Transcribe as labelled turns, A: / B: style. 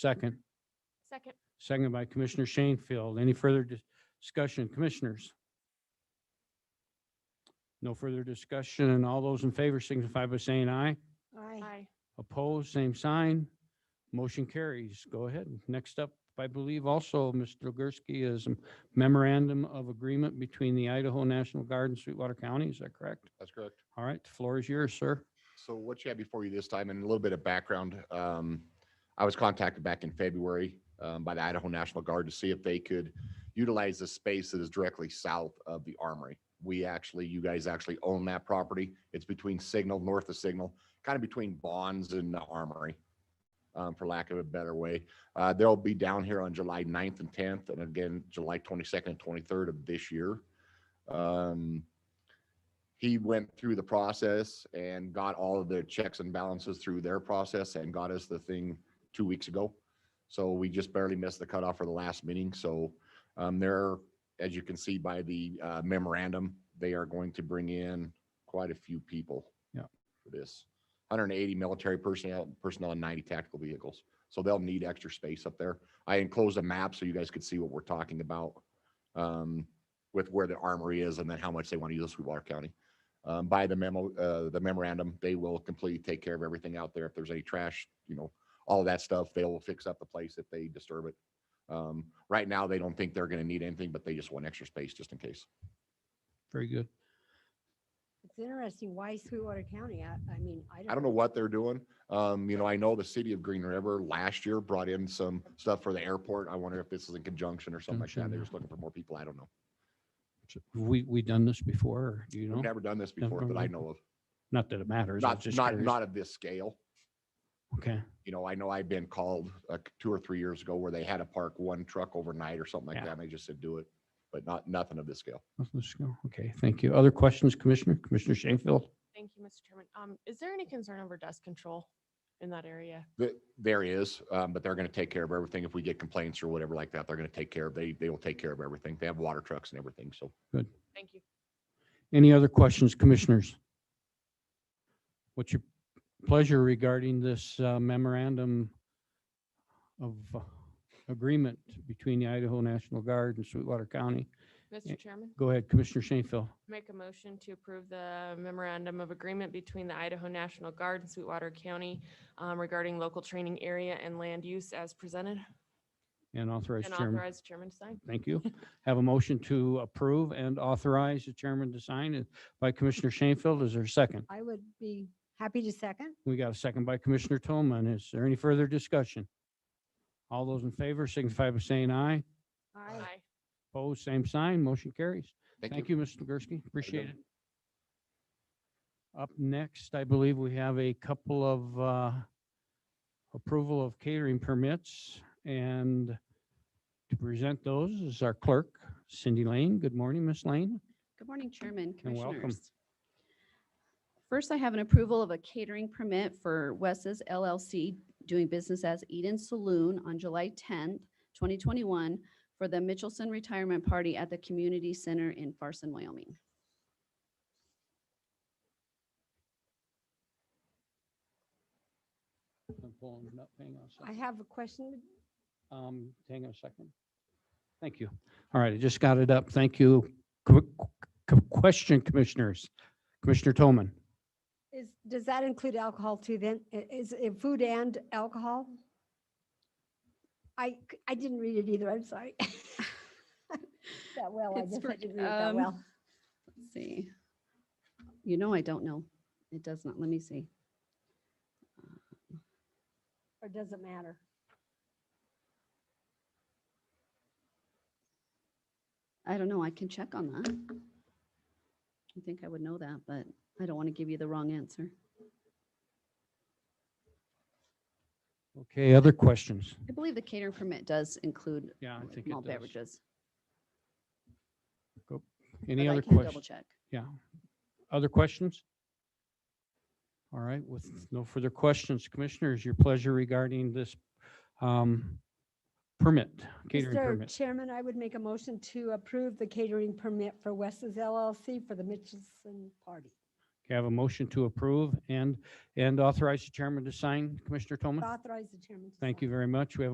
A: Second,
B: Second.
A: second by Commissioner Shanefield. Any further dis- discussion, commissioners? No further discussion, and all those in favor signify by saying aye.
B: Aye.
A: Opposed, same sign. Motion carries. Go ahead. Next up, I believe also, Mr. Gursky, is a memorandum of agreement between the Idaho National Guard and Sweetwater County. Is that correct?
C: That's correct.
A: All right, the floor is yours, sir.
C: So what you have before you this time and a little bit of background, um, I was contacted back in February, um, by the Idaho National Guard to see if they could utilize the space that is directly south of the armory. We actually, you guys actually own that property. It's between Signal, north of Signal, kind of between Bonds and the armory, um, for lack of a better way. Uh, they'll be down here on July 9th and tenth, and again, July twenty-second and twenty-third of this year. Um, he went through the process and got all of the checks and balances through their process and got us the thing two weeks ago. So we just barely missed the cutoff for the last meeting. So um, there, as you can see by the uh, memorandum, they are going to bring in quite a few people.
A: Yeah.
C: For this, 180 military personnel, personnel and 90 tactical vehicles. So they'll need extra space up there. I enclosed a map so you guys could see what we're talking about um, with where the armory is and then how much they want to use of Sweetwater County um, by the memo, uh, the memorandum, they will completely take care of everything out there. If there's any trash, you know, all of that stuff, they will fix up the place if they disturb it. Um, right now, they don't think they're gonna need anything, but they just want extra space just in case.
A: Very good.
D: It's interesting, why Sweetwater County? I, I mean, I don't.
C: I don't know what they're doing. Um, you know, I know the city of Green River last year brought in some stuff for the airport. I wonder if this is in conjunction or something like that. They're just looking for more people. I don't know.
A: We, we done this before, or do you
C: We've
A: know?
C: never done this before that I know of.
A: Not that it matters. I was
C: Not,
A: just
C: not,
A: curious.
C: not of this scale.
A: Okay,
C: you know, I know I've been called like two or three years ago where they had to park one truck overnight or something like
A: Yeah.
C: that. And they just said, do it, but not, nothing of this scale.
A: let's go. Okay, thank you. Other questions, Commissioner? Commissioner Shanefield?
B: Thank you, Mr. Chairman. Um, is there any concern over dust control in that area?
C: Th- There is, um, but they're going to take care of everything. If we get complaints or whatever like that, they're going to take care of, they, they will take care of everything. They have water trucks and everything. So
B: Thank you.
A: Any other questions, Commissioners? What's your pleasure regarding this uh, memorandum of uh, agreement between the Idaho National Guard and Sweetwater County? Yeah.
B: Mr. Chairman,
A: Go ahead, Commissioner Shanefield.
B: make a motion to approve the memorandum of agreement between the Idaho National Guard and Sweetwater County um, regarding local training area and land use as presented
A: And authorize
B: and
A: chairman.
B: authorize chairman to sign.
A: Thank you. Have a motion to approve and authorize the chairman to sign it by Commissioner Shanefield. Is there a second?
D: I would be happy to second.
A: We got a second by Commissioner Tolman. Is there any further discussion? All those in favor signify by saying aye.
D: I
A: Opposed, same sign. Motion carries.
C: thank
A: Thank
C: you.
A: you, Mr. Gursky. Appreciate it.
C: gentlemen.
A: Up next, I believe we have a couple of uh, approval of catering permits. And to present those is our clerk, Cindy Lane. Good morning, Miss Lane.
E: Good morning, Chairman,
A: and welcome.
E: Commissioners. First, I have an approval of a catering permit for Wes's LLC doing business as Eden Saloon on July 10th, 2021 for the Mitchelson Retirement Party at the Community Center in Farson, Wyoming.
A: I'm pulling it up. Hang on a second.
D: I have a question.
A: Um, hang on a second. Thank you. All right, I just got it up. Thank you. Qu- qu- Question, Commissioners. Commissioner Toman.
D: Is, does that include alcohol too then? I- Is it food and alcohol? I, c- I didn't read it either, I'm sorry. That well, I
E: It's
D: guess
E: for-
D: I didn't read it that
E: um,
D: well.
E: Let's see. You know, I don't know. It does not, let me see.
D: Or does it matter?
E: I don't know. I can check on that. I think I would know that, but I don't want to give you the wrong answer.
A: Okay, other questions?
E: I believe the catering permit does include
A: Yeah, I
E: like
A: think
E: malt
A: it does.
E: beverages.
A: Any
E: but I
A: other
E: can Double
A: questions?
E: check.
A: Yeah. Other questions? All right, with no further questions, Commissioners, your pleasure regarding this um, permit, catering
D: Mr.
A: permit.
D: Chairman, I would make a motion to approve the catering permit for Wes's LLC for the Mitchelson Party.
A: Okay, I have a motion to approve and, and authorize the chairman to sign. Commissioner Toman?
D: Authorize the chairman to
A: Thank
D: sign.
A: you very much. We have